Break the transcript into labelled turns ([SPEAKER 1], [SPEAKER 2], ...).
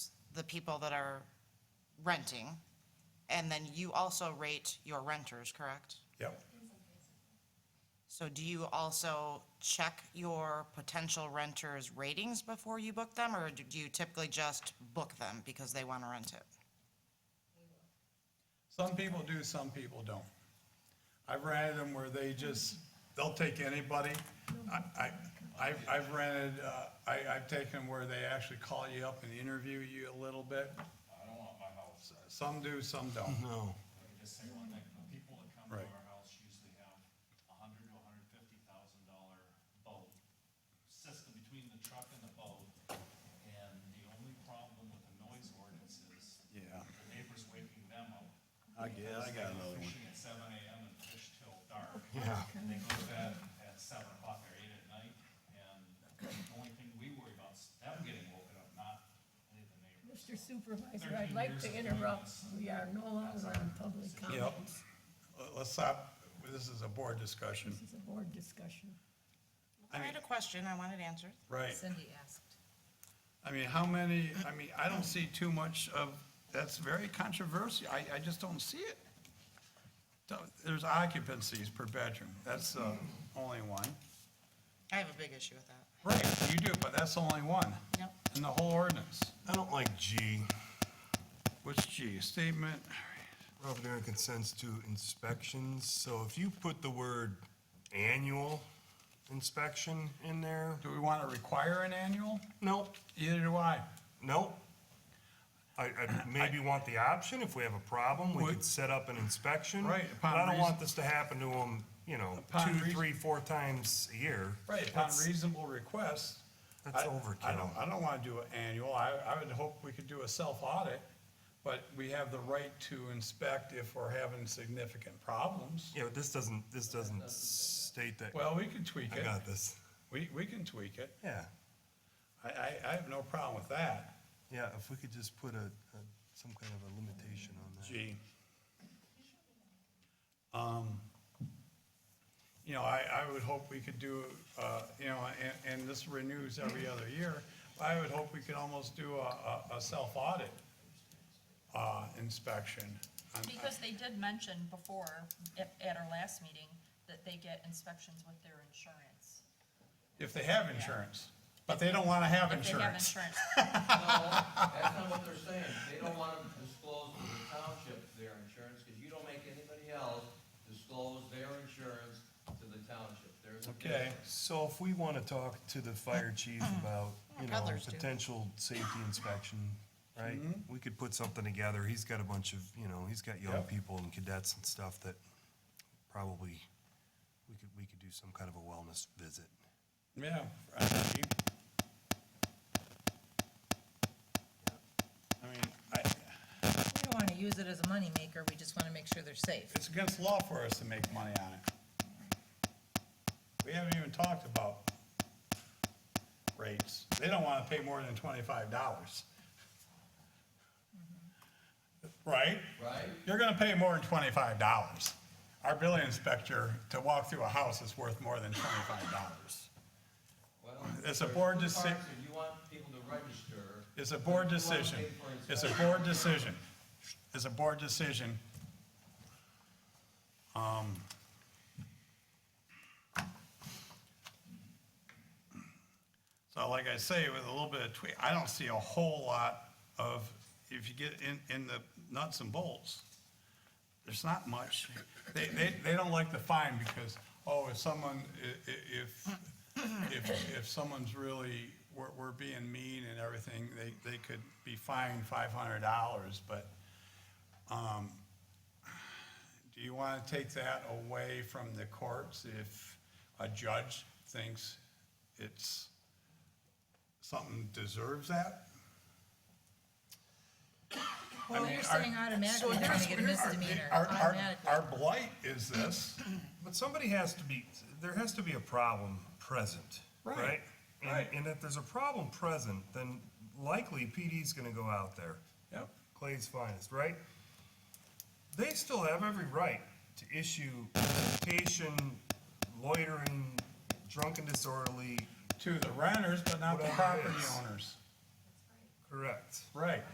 [SPEAKER 1] the people that are renting, and then you also rate your renters, correct?
[SPEAKER 2] Yep.
[SPEAKER 1] So do you also check your potential renters' ratings before you book them, or do you typically just book them because they want to rent it?
[SPEAKER 2] Some people do, some people don't. I've rented them where they just, they'll take anybody. I, I, I've- I've rented, uh, I, I've taken them where they actually call you up and interview you a little bit.
[SPEAKER 3] I don't want my house.
[SPEAKER 2] Some do, some don't.
[SPEAKER 4] No.
[SPEAKER 3] Let me just say one thing, the people that come to
[SPEAKER 2] Right.
[SPEAKER 3] our house usually have a hundred to a hundred fifty thousand dollar boat system between the truck and the boat. And the only problem with the noise ordinance is
[SPEAKER 2] Yeah.
[SPEAKER 3] the neighbors waking them up.
[SPEAKER 2] I get- I got
[SPEAKER 3] because they go
[SPEAKER 2] another one.
[SPEAKER 3] Fishing at seven AM and fish till dark. Yeah. And they go to bed at seven o'clock or eight at night, and the only thing we worry about is them getting woken up, not any of the neighbors.
[SPEAKER 5] Mr. Supervisor, I'd like to interrupt. We are no longer on public comments.
[SPEAKER 2] Let- Let's stop, this is a board discussion.
[SPEAKER 5] This is a board discussion.
[SPEAKER 1] I had a question, I wanted answered.
[SPEAKER 2] Right.
[SPEAKER 6] Cindy asked.
[SPEAKER 2] I mean, how many, I mean, I don't see too much of, that's very controversial. I, I just don't see it. Don't- There's occupancies per bedroom. That's the only one.
[SPEAKER 1] I have a big issue with that.
[SPEAKER 2] Right, you do, but that's only one.
[SPEAKER 1] Yep.
[SPEAKER 2] In the whole ordinance.
[SPEAKER 4] I don't like G,
[SPEAKER 2] What's G, statement,
[SPEAKER 4] Provident and consents to inspections, so if you put the word annual inspection in there,
[SPEAKER 2] do we want to require an annual?
[SPEAKER 4] nope,
[SPEAKER 2] Either do I.
[SPEAKER 4] nope. I, I maybe want the option, if we have a problem, we could set up an inspection.
[SPEAKER 2] Right,
[SPEAKER 4] But
[SPEAKER 2] upon
[SPEAKER 4] I don't want
[SPEAKER 2] reason-
[SPEAKER 4] this to happen to them, you know,
[SPEAKER 2] Upon
[SPEAKER 4] two,
[SPEAKER 2] reason-
[SPEAKER 4] three, four times a year.
[SPEAKER 2] Right, upon
[SPEAKER 4] That's-
[SPEAKER 2] reasonable request.
[SPEAKER 4] That's
[SPEAKER 2] I- I
[SPEAKER 4] overkill.
[SPEAKER 2] don't, I don't want to do an annual. I, I would hope we could do a self-audit, but we have the right to inspect if we're having significant problems.
[SPEAKER 4] Yeah, but this doesn't, this doesn't state that,
[SPEAKER 2] Well, we can tweak
[SPEAKER 4] I
[SPEAKER 2] it.
[SPEAKER 4] got this,
[SPEAKER 2] We, we can tweak it.
[SPEAKER 4] yeah.
[SPEAKER 2] I, I, I have no problem with that.
[SPEAKER 4] Yeah, if we could just put a, a- some kind of a limitation on that.
[SPEAKER 2] Gee. Um, You know, I, I would hope we could do, uh, you know, and, and this renews every other year. I would hope we could almost do a, a, a self-audit, uh, inspection. on-
[SPEAKER 6] Because they did mention before, at, at our last meeting, that they get inspections with their insurance.
[SPEAKER 2] If they have insurance, but they don't wanna have
[SPEAKER 6] If they have
[SPEAKER 2] insurance.
[SPEAKER 6] insurance,
[SPEAKER 7] No, that's not what they're saying. They don't want to disclose to the township their insurance, because you don't make anybody else disclose their insurance to the township. There's a
[SPEAKER 2] Okay,
[SPEAKER 7] difference.
[SPEAKER 4] So if we want to talk to the fire chief about, you know,
[SPEAKER 1] Others do.
[SPEAKER 4] potential safety inspection, right? We could put something together. He's got a bunch of, you know, he's got young
[SPEAKER 2] Yep.
[SPEAKER 4] people and cadets and stuff that probably, we could, we could do some kind of a wellness visit.
[SPEAKER 2] yeah. I- I mean, I,
[SPEAKER 8] We don't want to use it as a moneymaker, we just want to make sure they're safe.
[SPEAKER 2] It's against law for us to make money on it. We haven't even talked about rates. They don't wanna pay more than twenty-five dollars. Right?
[SPEAKER 7] Right?
[SPEAKER 2] You're gonna pay more than twenty-five dollars. Our building inspector to walk through a house is worth more than twenty-five dollars.
[SPEAKER 7] Well,
[SPEAKER 2] It's a
[SPEAKER 7] there's
[SPEAKER 2] board
[SPEAKER 7] two
[SPEAKER 2] deci-
[SPEAKER 7] parts here. You want people to register.
[SPEAKER 2] It's a board
[SPEAKER 7] You want to pay
[SPEAKER 2] decision.
[SPEAKER 7] for
[SPEAKER 2] It's a
[SPEAKER 7] inspection.
[SPEAKER 2] board decision. It's a board decision. Um, So like I say, with a little bit of tweak, I don't see a whole lot of, if you get in, in the nuts and bolts, there's not much. They, they, they don't like the fine because, oh, if someone, i- i- if, if, if someone's really, we're, we're being mean and everything, they, they could be fined five hundred dollars, but, um, do you wanna take that away from the courts if a judge thinks it's, something deserves that? I
[SPEAKER 8] Well,
[SPEAKER 2] mean,
[SPEAKER 8] you're
[SPEAKER 2] our-
[SPEAKER 8] saying automatically they're going to get a misdemeanor,
[SPEAKER 2] Our, our,
[SPEAKER 8] automatically.
[SPEAKER 2] our blight is this,
[SPEAKER 4] But somebody has to be, there has to be a problem present,
[SPEAKER 2] Right,
[SPEAKER 4] right? And-
[SPEAKER 2] right.
[SPEAKER 4] And if there's a problem present, then likely PD's gonna go out there.
[SPEAKER 2] Yep.
[SPEAKER 4] Clay's finest, right? They still have every right to issue citation, loitering, drunken disorderly,
[SPEAKER 2] to the renters, but not the
[SPEAKER 4] Whatever it
[SPEAKER 2] property
[SPEAKER 4] is.
[SPEAKER 2] owners.
[SPEAKER 4] correct?
[SPEAKER 2] Right.